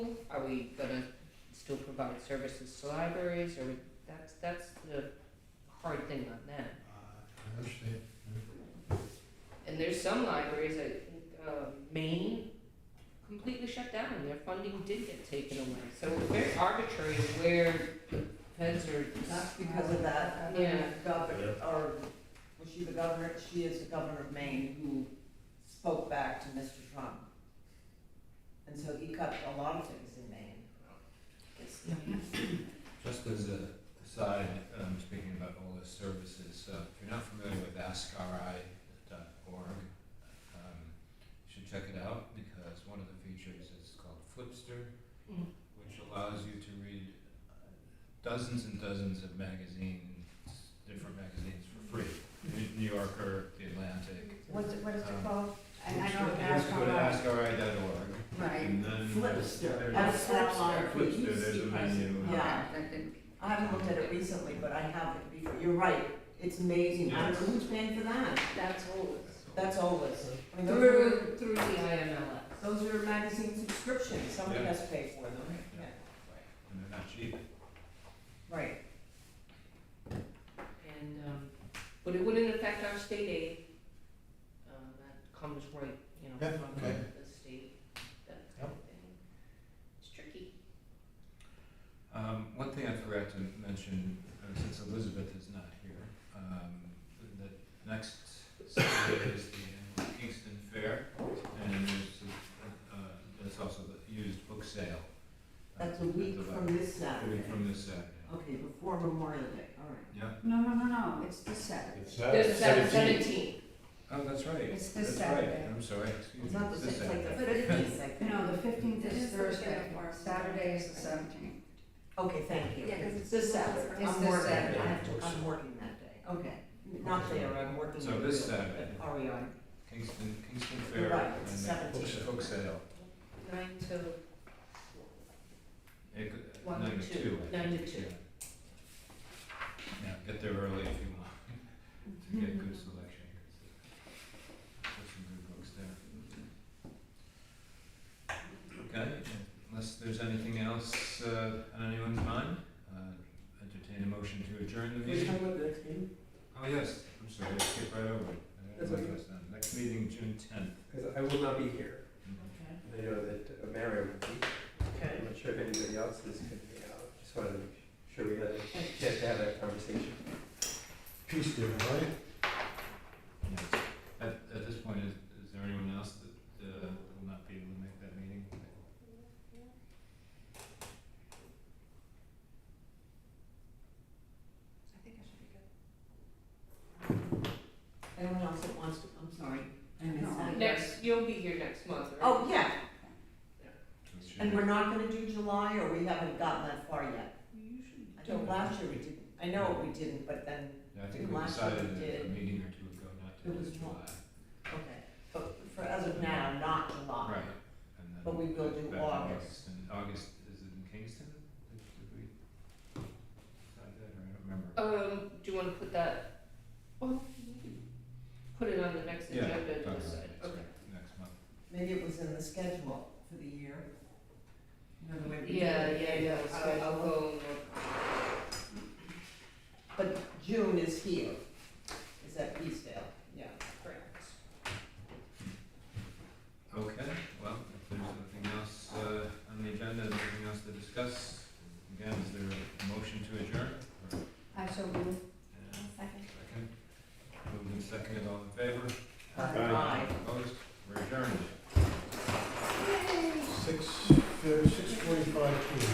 are we gonna still provide services to libraries, or that's, that's the hard thing on that. Uh, I understand. And there's some libraries that, uh, Maine completely shut down, their funding did get taken away, so it's very arbitrary where the feds are. That's because of that, Uh, Yeah. governor, or, was she the governor, she is the governor of Maine who spoke back to Mr. Trump. And so he cut a lot of things in Maine. It's- Just as a aside, um, speaking about all the services, uh, if you're not familiar with AskRI.org, um, you should check it out because one of the features is called Flipster, Mm. which allows you to read uh, dozens and dozens of magazines, different magazines for free. New- New Yorker, The Atlantic. What's, it- what is Oh. Um, it called? I, I You don't have ask to how go to much. AskRI.org. Right. And then. Flipster, there's- that's Flipster. Flipster. Flipster, there's a menu. Yeah. I haven't looked at it recently, but I have it before, you're right, it's amazing, I don't know who's paying for that, That's old. that's always. I mean, those are- Through, through the IMLS. Those are magazine subscriptions, somebody Yeah. has to pay for them. Yeah. And they're not cheap. Right, And, um, but it wouldn't affect our state aid, um, that comes right, you know, Yeah, from okay. the state, that kind of thing. It's tricky. Um, one thing I forgot to mention, uh, since Elizabeth is not here, um, that next Saturday is the annual Kingston Fair, and there's, a- uh, that's also the used book sale. uh, that's a at week the from library. this A Saturday. week from this Saturday. Okay, before Memorial Day, all right. Yeah, No, no, no, no, it's this Saturday. It's There's a seven- Saturday, Uh, seventeen. seventeen. oh, that's right. It's this That's right. Saturday. I'm sorry, excuse me. It's not the this sixth, like the Saturday. fifteenth, like that. No, the fifteenth It is is the weekend Thursday, before. Saturday is the seventeenth. Okay, thank you. Yeah, 'cause it's This this Saturday. Saturday. It's I'm this working, I Saturday. have to, I'm working that day, okay. Not there, I'm working. So the this real- Saturday. Are we on? Kingston, Kingston Fair. Right, and it's the book- 17. Book sale, Nine to, It could- One to nine to two. two. I Nine think, to two. yeah. Yeah, get there early if you want, to get good selection, 'cause there's some good books there. Okay, unless there's anything else, uh, on anyone's mind, uh, entertain a motion to adjourn the meeting. about the next meeting? Oh, yes, I'm sorry, I skipped right over it. I didn't That's write okay. this down. Next meeting, June tenth. Because I will not be here. Okay. I know that uh, Mario would be. I'm not sure if anybody else is going to be out. Just wanted to make sure we got a chance to have that conversation. Peace, dear, right? Yes. At, at this point, is, is there anyone else that, uh, will not be able to make that meeting? I think I should be good. Anyone else that wants to, I'm sorry, I No. missed that. next, you'll be here next month, right? Oh, yeah, So it should and be- we're not gonna do July, or we haven't gotten that far yet? I think last year we didn't, I know we didn't, but then, Yeah, I think we Last year we decided did. a meeting or two ago not to It was do not- July. okay, but for, as of now, not July. Right, and then. But we will do back in August. And August, is it in Kingston? Did did we decide that, or I don't remember? Um, do you wanna put that, well, Oh, you can put it on the next Yeah, agenda talk to Uh-huh. about decide, it, okay. sorry, Next month. Maybe it was in the schedule for the year. You know, the way we do Yeah, it. yeah, yeah, so I'll go and look. But June is here, is at Peaceville, yeah. Correct. Okay, well, if there's nothing else, uh, on the agenda, nothing else to discuss, again, is there a motion to adjourn? or- I so move. and Second. Second, moved and seconded, all in favor? Aye. Opposed, we're adjourned. Six, uh, six